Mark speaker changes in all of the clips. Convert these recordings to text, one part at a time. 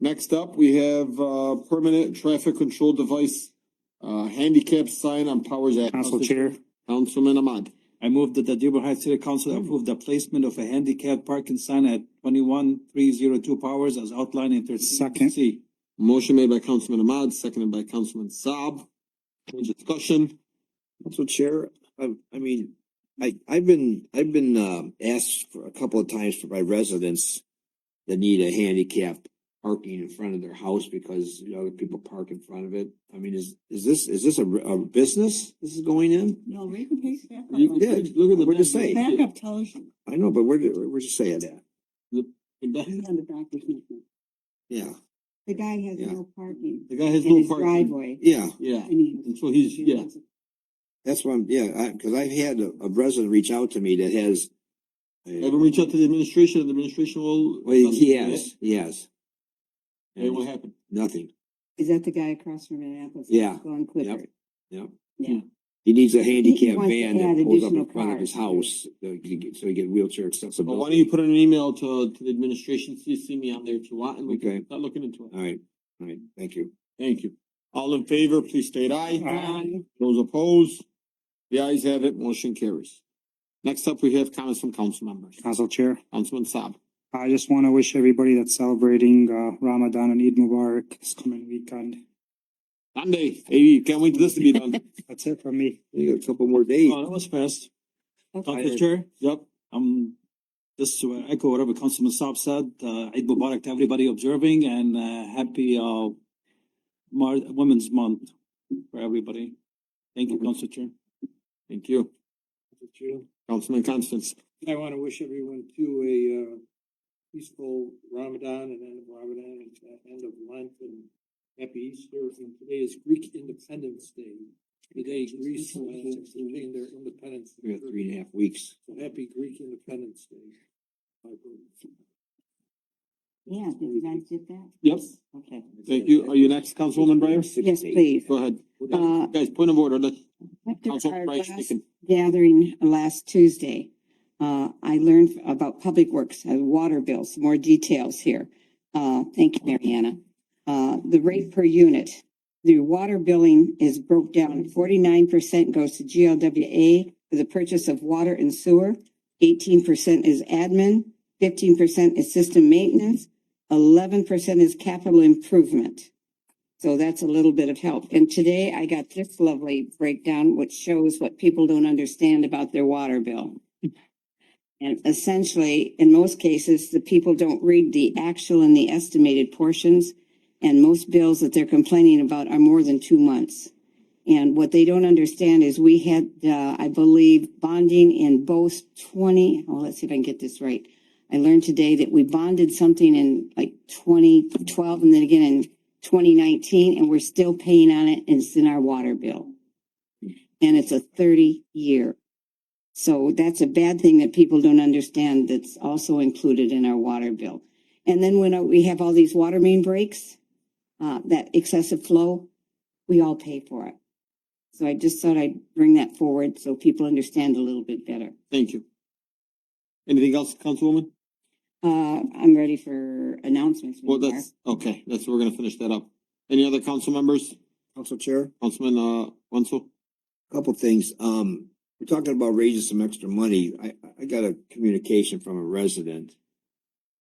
Speaker 1: Next up, we have uh permanent traffic control device, uh handicap sign on Powers Avenue.
Speaker 2: Council Chair,
Speaker 1: Councilman Ahmad.
Speaker 2: I move that the Dearborn Heights City Council approve the placement of a handicap parking sign at twenty-one three zero two Powers as outlined in thirteen
Speaker 3: Second.
Speaker 2: C.
Speaker 1: Motion made by Councilman Ahmad, seconded by Councilman Saab. Any discussion?
Speaker 4: Council Chair, I, Um, I mean, I, I've been, I've been, um, asked for a couple of times for my residents that need a handicap parking in front of their house because you know, other people park in front of it. I mean, is, is this, is this a, re- a business this is going in?
Speaker 5: No, we can pay back
Speaker 1: You-
Speaker 5: up.
Speaker 4: Yeah,
Speaker 1: Look at the.
Speaker 4: What'd you say?
Speaker 5: Backup tells you.
Speaker 4: I know, but where, did- where- where'd you say that?
Speaker 1: The
Speaker 5: He's on the doctor's note.
Speaker 4: Yeah,
Speaker 5: The guy has
Speaker 4: Yeah.
Speaker 5: no parking
Speaker 1: guy has
Speaker 5: in
Speaker 1: no
Speaker 5: his
Speaker 1: parking.
Speaker 5: driveway.
Speaker 4: yeah,
Speaker 1: Yeah,
Speaker 5: and he-
Speaker 1: and so he's, yeah,
Speaker 4: that's what I'm, yeah, I, cause I've had a, a resident reach out to me that has. a-
Speaker 1: have him reach out to the administration, and the administration will.
Speaker 4: Well, he has, he has.
Speaker 1: It will happen.
Speaker 4: Nothing.
Speaker 5: Is that the guy across from Annapolis?
Speaker 4: Yeah.
Speaker 5: Going Clifford.
Speaker 4: Yep.
Speaker 5: Yeah.
Speaker 4: He needs a handicap
Speaker 5: wants to
Speaker 4: van
Speaker 5: add
Speaker 4: that pulls up
Speaker 5: additional
Speaker 4: in front of his
Speaker 5: cars.
Speaker 4: house, so he can get, so he get wheelchair
Speaker 1: Well, why
Speaker 4: accessibility.
Speaker 1: don't you put in an email to to the administration, CC me on there if you want, and we
Speaker 4: Okay.
Speaker 1: can start looking into it.
Speaker 4: All right, all right, thank you.
Speaker 1: Thank you. All in favor, please state aye.
Speaker 3: Aye.
Speaker 1: Those opposed? The ayes have it, motion carries. Next up, we have comments from council members.
Speaker 3: Council Chair,
Speaker 1: Councilman Saab.
Speaker 3: I just want to wish everybody that's celebrating uh, Ramadan and Eid Mubarak this coming weekend.
Speaker 1: Sunday, hey, can't wait for this to be done.
Speaker 3: That's it from me.
Speaker 4: We got a couple more days.
Speaker 2: Oh, that was fast.
Speaker 5: Okay.
Speaker 2: Council Chair,
Speaker 1: Yep,
Speaker 2: um, just to echo whatever Councilman Saab said, uh, Eid Mubarak to everybody observing and, uh, happy, uh, Mar- Women's Month for everybody. Thank you, Council Chair.
Speaker 1: thank you.
Speaker 6: Mr. Chair.
Speaker 1: Councilman Constance.
Speaker 6: I want to wish everyone too a uh, peaceful Ramadan and end of Ramadan and uh, end of Lent and happy Easter. And today is Greek Independence Day. Today Greece will gain their independence.
Speaker 4: We got three and a half weeks.
Speaker 6: So happy Greek Independence Day. My brother.
Speaker 5: Yeah, did you guys get that?
Speaker 1: Yep,
Speaker 5: Okay.
Speaker 1: thank you. Are you next, Councilwoman Breyer?
Speaker 5: Yes, please.
Speaker 1: Go ahead.
Speaker 5: Uh,
Speaker 1: Guys, point of order, let
Speaker 5: After
Speaker 1: Councilwoman
Speaker 5: our
Speaker 1: Breyer
Speaker 5: last
Speaker 1: speak.
Speaker 5: gathering last Tuesday, uh, I learned about public works, uh, water bills, more details here. Uh, thank you, Mariana. Uh, the rate per unit, the water billing is broke down. Forty-nine percent goes to GLWA for the purchase of water and sewer. Eighteen percent is admin, fifteen percent is system maintenance, eleven percent is capital improvement. So that's a little bit of help. And today I got this lovely breakdown, which shows what people don't understand about their water bill. And essentially, in most cases, the people don't read the actual and the estimated portions. And most bills that they're complaining about are more than two months. And what they don't understand is we had, uh, I believe, bonding in both 20, oh, let's see if I can get this right. I learned today that we bonded something in like 2012 and then again in twenty nineteen, and we're still paying on it, and it's in our water bill. And it's a thirty year. So that's a bad thing that people don't understand that's also included in our water bill. And then when uh, we have all these water main breaks, uh, that excessive flow, we all pay for it. So I just thought I'd bring that forward so people understand a little bit better.
Speaker 1: Thank you. Anything else, Councilwoman?
Speaker 5: Uh, I'm ready for announcements. Madam
Speaker 1: Well,
Speaker 5: Chair.
Speaker 1: that's, okay, that's, we're gonna finish that up. Any other council members?
Speaker 4: Council Chair,
Speaker 1: Councilman, uh, Wenzel?
Speaker 4: a couple things. Um, we're talking about raising some extra money. I, I got a communication from a resident.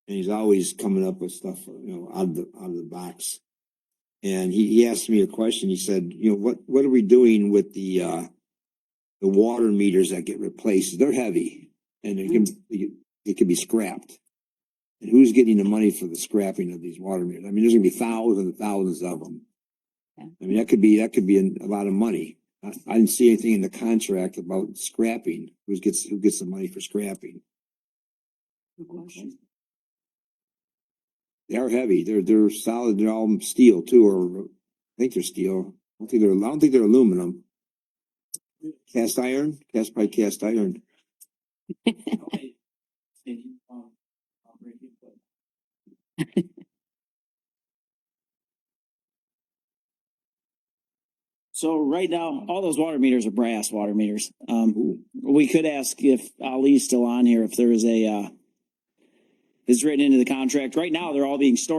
Speaker 4: And he's always coming up with stuff, you know, out of the, out of the box. And he, he asked me a question. He said, you know, what, what are we doing with the, uh, the water meters that get replaced? They're heavy and they can, they can be scrapped. And who's getting the money for the scrapping of these water meters? I mean, there's gonna be thousands and thousands of them.
Speaker 5: Yeah.
Speaker 4: I mean, that could be, that could be a lot of money. I, I didn't see anything in the contract about scrapping, who gets, who gets the money for scrapping.
Speaker 5: Good question.
Speaker 4: They are heavy. They're, they're solid. They're all steel too, or I think they're steel. I don't think they're, I don't think they're aluminum. Cast iron, cast by cast iron.
Speaker 7: So right now, all those water meters are brass water meters. Um, we could ask if Ali's still on here, if there is a, uh, it's written into the contract. Right now, they're all being stored